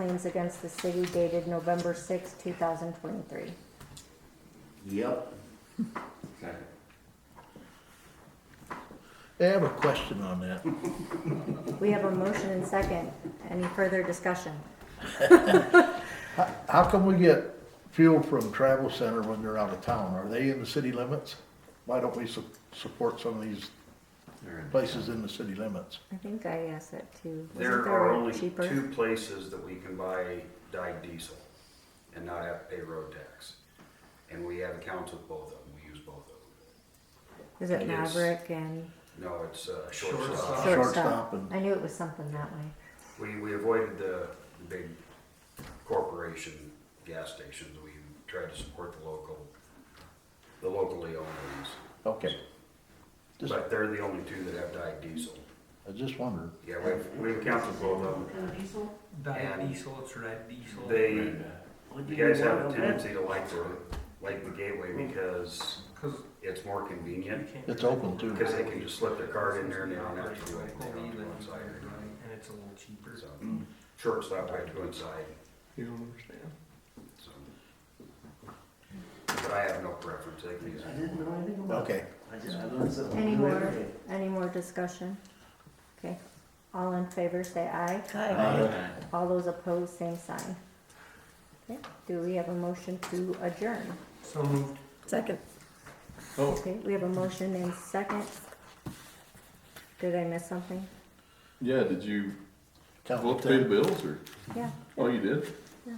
claims against the city dated November sixth, two thousand twenty-three. Yep. Second. I have a question on that. We have a motion and second. Any further discussion? How- How come we get fuel from Travel Center when they're out of town? Are they in the city limits? Why don't we su- support some of these They're in. places in the city limits? I think I asked that too. Wasn't There are a only cheaper? two places that we can buy dyed diesel and not have to pay road tax. And we have accounts with both of them, we use both of them. Is it Yes. Maverick and No, it's uh, shortstop. Shortstop shortstop? and- I knew it was something that way. We, we avoided the the big corporation gas stations, we tried to support the local, the locally owned ones. Okay. Just, But they're the only two that have dyed diesel. I just wondered. Yeah, we have, we have accounts with both of them. Diesel? Diet And diesel, it's red diesel. They, What do you guys have a want? tendency to like the, like the gateway because Cause it's more convenient. you can't. It's open too. Because they can just slip their card in there and they don't have to do Locally, anything on the then, inside or anything. And it's a little cheaper. So, shortstop by two inside, You don't understand. so. But I have no preference, they can use I it. didn't know anything about Okay. I just, I learned something. Any new more, every day. any more discussion? Okay, all in favor, say aye. Aye. All those opposed, same sign. Okay, do we have a motion to adjourn? So moved. Second. Okay, we have a motion and second. Did I miss something? Yeah, did you Tell vote to them. pay the bills or, Yeah, oh, you did? Yeah.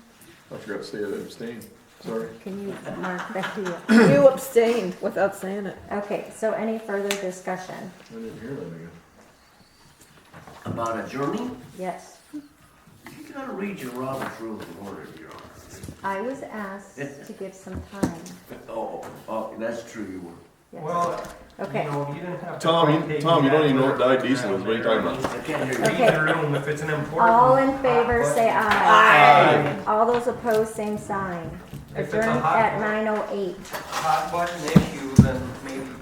I forgot to say I abstained, sorry. can you mark that here? You abstained without saying it. Okay, so any further discussion? I didn't hear that again. About a journey? Yes, You gotta read your Robert's Rule of Order, Your Honor. I was asked to give some time. Oh, oh, that's true, you were. Yes. Well, you Okay. know, you didn't have to. Tom, you- fucking Tom, you don't even know what take dyed diesel is. What are you talking about? I can't hear you. Okay. Leave the room if it's an important. All in favor, hot say button. aye. Aye. All those opposed, same sign. If it's a Adjourned hot at one. nine oh eight. Hot button issue, then maybe